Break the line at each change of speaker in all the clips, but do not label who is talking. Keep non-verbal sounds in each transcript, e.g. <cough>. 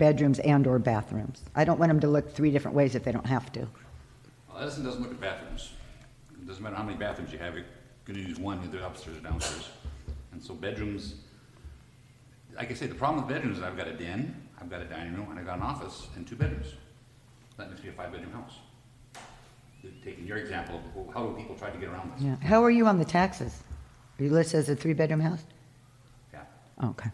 bedrooms and/or bathrooms. I don't want them to look three different ways if they don't have to.
Well, Edison doesn't look at bathrooms. It doesn't matter how many bathrooms you have, you could use one either upstairs or downstairs. And so bedrooms, like I say, the problem with bedrooms is I've got a den, I've got a dining room, and I've got an office and two bedrooms. That makes me a five-bedroom house. Taking your example of well, how do people try to get around this?
Yeah. How are you on the taxes? Are you listed as a three-bedroom house?
Yeah.
Okay.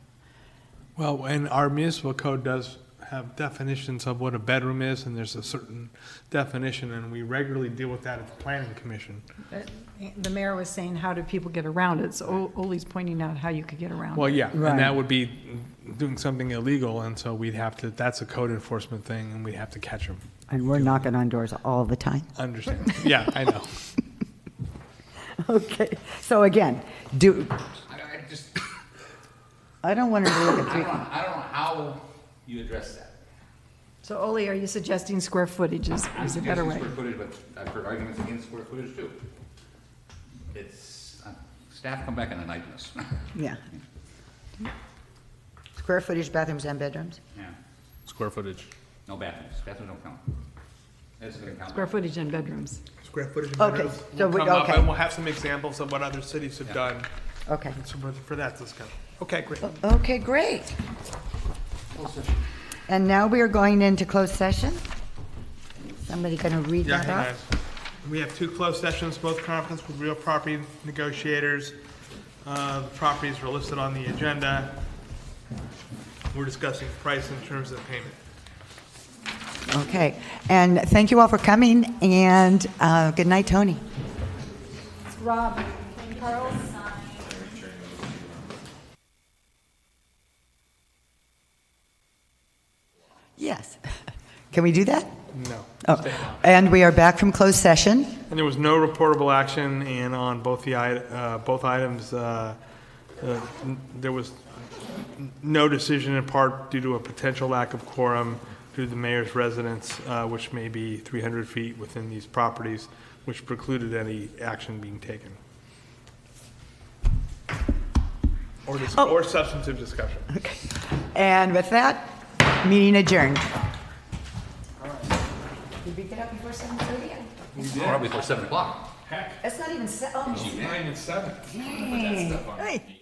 Well, and our municipal code does have definitions of what a bedroom is, and there's a certain definition, and we regularly deal with that at the planning commission.
But The mayor was saying, how do people get around it? So Ollie's pointing out how you could get around
Well,
it.
yeah, and
Right.
that would be doing something illegal, and so we'd have to, that's a code enforcement thing, and we'd have to catch them.
And we're knocking on doors all the time.
<laughs> Understand? Yeah, I know.
<laughs> Okay. So again, do,
I, I just,
I don't want them to look
I don't,
at
know- I don't know how you address that.
So Ollie, are you suggesting square footage is,
I'm
is a better
suggesting
way?
square footage, but I've heard arguments against square footage too. It's, uh, staff come back and enlighten us. <laughs>
three, yeah. Square footage bathrooms and bedrooms?
Yeah.
Square footage.
No bathrooms, bathrooms don't count. That's gonna count.
Square footage and bedrooms.
Square footage.
Okay, bedrooms so
We'll
we-
come up,
okay.
Um, and we'll have some examples of what other cities have done,
Okay.
so for- for that discussion. Okay, great.
Okay, great. And now we are going into closed session? Somebody going to read that
Yeah, hang
off?
on. We have two closed sessions, both conference with real property negotiators. Uh, The properties are listed on the agenda. We're discussing price in terms of payment.
Okay, and thank you all for coming, and uh, good night, Tony. Yes. <laughs> Can we do that?
No.
Oh, And we are back from closed session.
And there was no reportable action, and on both the, i- uh, both items, uh, uh, n- there was n- no decision in part due to a potential lack of quorum due to the mayor's residence, uh, which may be 300 feet within these properties, which precluded any action being taken. Or dis- or substantive discussion.
Okay. And with that, meeting adjourned. Did we get up before 7:30?
Probably before seven o'clock.
It's not even, se- oh,
Nine and seven.
Hey.